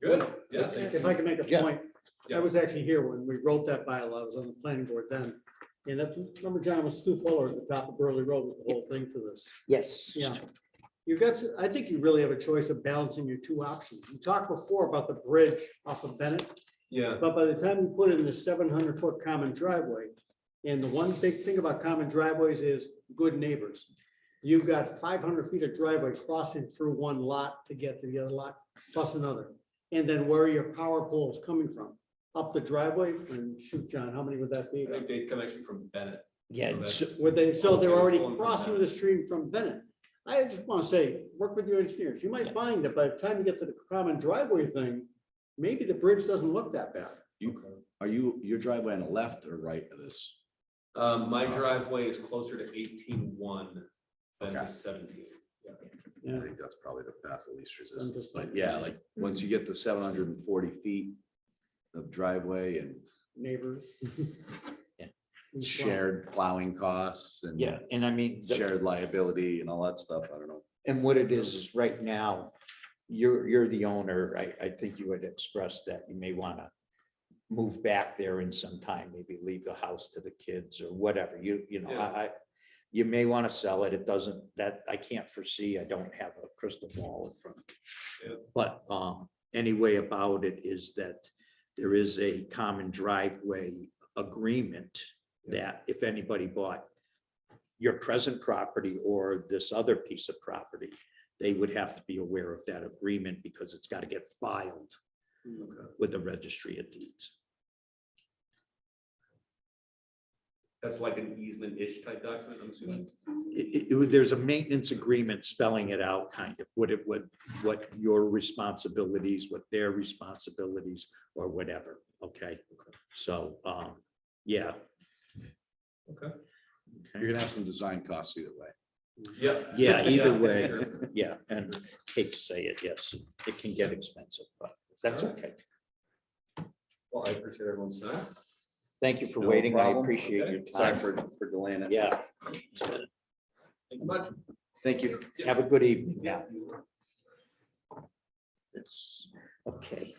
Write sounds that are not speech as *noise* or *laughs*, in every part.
Good, yeah. If I can make a Yeah. point, I Yeah. was actually here when we wrote that bylaw, I was on the planning board then. And that, remember John was Stu Fuller at the top of Burley Road with the whole thing for this. Yes. Yeah. You've got, to- I think you really have a choice of balancing your two options. You talked before about the bridge off of Bennett. Yeah, But by the time you put in the seven hundred foot common driveway, and the one big thing about common driveways is good neighbors. You've got five hundred feet of driveway crossing through one lot to get to the other lot, plus another. And then where are your power poles coming from? Up the driveway and shoot, John, how many would that I be? think they come actually from Bennett. Yeah, So it's- that's- Would they, so they're already Pulling from crossing the Bennett. stream from Bennett. I just want to say, work with your engineers. You might find that by the time you get to the common driveway thing, maybe the bridge doesn't look that bad. Are you, your driveway on the left or right of this? Um, my driveway is closer to eighteen one than to Okay. seventeen. I Yeah. think that's probably the path of least resistance, but yeah, like, once you get to seven hundred and forty feet of driveway and neighbors. Yeah. And so- shared plowing costs and yeah, and I mean, the- shared liability and all that stuff, I don't know. and what it is, is right now, you're, you're the owner. I, I think you had expressed that you may want to move back there in some time, maybe leave the house to the kids or whatever. You, you know, I, I- you may want to sell it. It doesn't, that, I can't foresee. I don't have a crystal ball in front. of Yeah. me. But, um, anyway about it is that there is a common driveway agreement that if anybody bought your present property or this other piece of property, they would have to be aware of that agreement because it's got to get filed with the registry of deeds. That's like an easement-ish type document, I'm assuming. It, it- it, was- there's a maintenance agreement spelling it out kind of what it would, what your responsibilities, what their responsibilities or whatever. Okay, so, um, yeah. Okay. You're Okay, gonna have some design costs either way. Yep. Yeah, either way. sure. yeah, and hate to say it, yes, it can get expensive, but that's okay. Well, I appreciate everyone's time. Thank you for No waiting. I problem. appreciate your Sorry time. for, for delaying it. Yeah, Thank you much. Thank you. have a good evening now. Yeah. Yes, okay.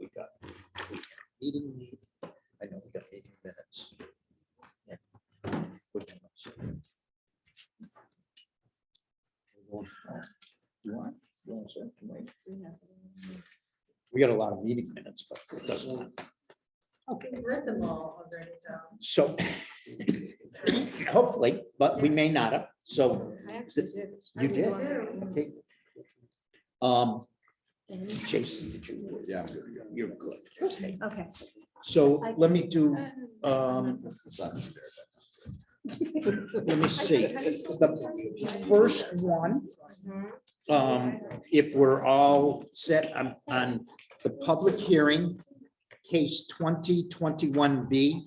We got, we got meeting, I know we got meeting minutes. Yeah. Which ones? You want- you want to send to Mike? We got a lot of meeting minutes, but it doesn't, matter. We read them all already, though. so *coughs* hopefully, but we may not have, so I actually did. I you did did, one. okay. Um, And- Jason, did you? Yeah, I'm good to go. You're good. Okay, Okay. so I- let me do, *laughs* um, Um, It's not just there, let me see. The first one, um, if we're all set on, on the public hearing, case twenty twenty-one B,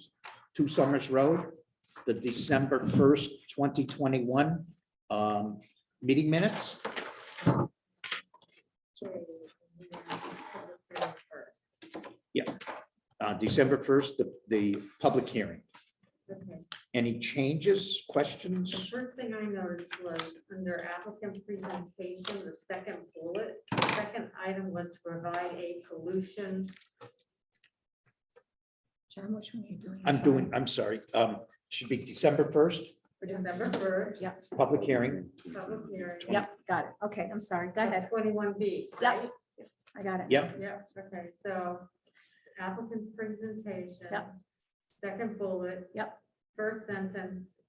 Two Summers Road, the December first, twenty twenty-one, um, meeting minutes. Uh, December first, the, the public hearing. Okay. Any changes, The questions? first thing I noticed was under applicant presentation, the second bullet, the second item was to provide a solution. John, which one are you doing? I'm doing, I'm sorry, um, should be December first, For December first, Yeah. public hearing. public hearing. Yep, got it. Okay, I'm sorry. Go ahead. Twenty-one B. Yep. I got it. Yep, Yep, okay, so applicant's presentation. Yep. Second bullet. Yep. First sentence,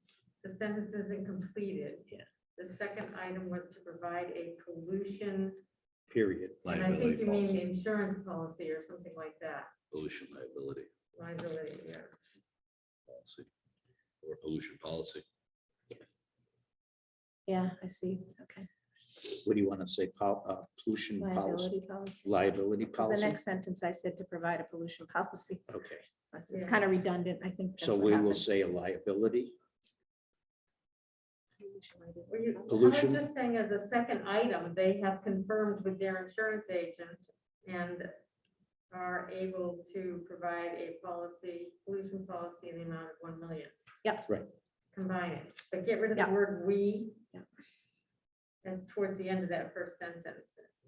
the sentence isn't completed. Yeah. The second item was to provide a pollution, period. and I think Liability you mean policy. the insurance policy or something like that, Pollution liability liability, yeah. policy or pollution policy. Yeah, I see. Okay. What do you want to say, pol- uh, pollution policy, Liability policy. liability 'Cause The policy? next sentence I said to provide a pollution *laughs* policy. Okay, It's- It's Yeah. kind of redundant. I think. that's so what we will happened. say a liability. Were you, Pollution. I'm just saying as a second item, they have confirmed with their insurance agent and are able to provide a policy, pollution policy in the amount of one million. Yep. Right. Combine it, but get rid of the Yep. word we. Yep. and towards the end of that first sentence.